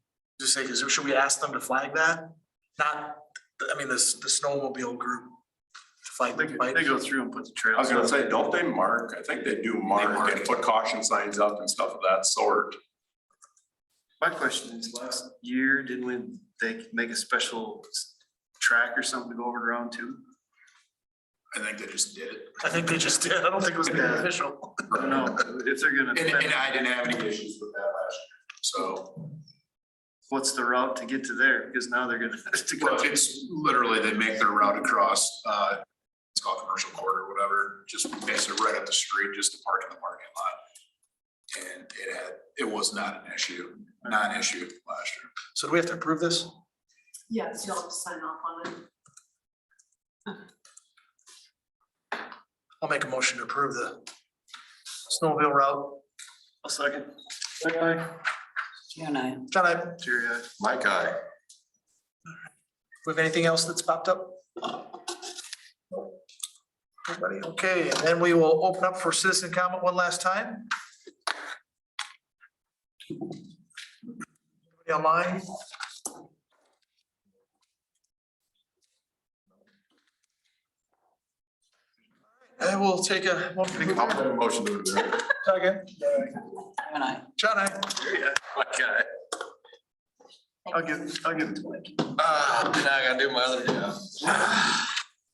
Just say, 'cause should we ask them to flag that? Not, I mean, this, the snowmobile group. to Flag They the go- bike. they go through and put the trails. I was gonna up. say, don't they mark? I think they do mark mark and it. put caution signs up and stuff of that sort. My question is, last year, didn't we, they make a special s- track or something to go over to round two? I think they just did it. I think they just did. I don't think it was Yeah. official. I don't know, if they're gonna, And, and I didn't have any issues with that last year, so. what's the route to get to there? Because now they're gonna. to go- Well, it's literally, they make their route across, uh, it's called commercial corridor, or whatever, just basically right up the street, just to park in the parking lot. And it had, it was not an issue, not an issue last year. So do we have to approve this? Yes, you'll have to sign off on it. I'll make a motion to approve the snowmobile route. I'll second. Aye. June I. John, I- do Jerry, aye. Mike, I. we have anything else that's popped up? Everybody, okay, and then we will open up for citizen comment one last time. Anybody Online? I will take a. motion to adjourn. Second. June I. John, I. Jerry, aye. I'll give, I'll give it to Mike. Uh, Ah, now I gotta do my other job.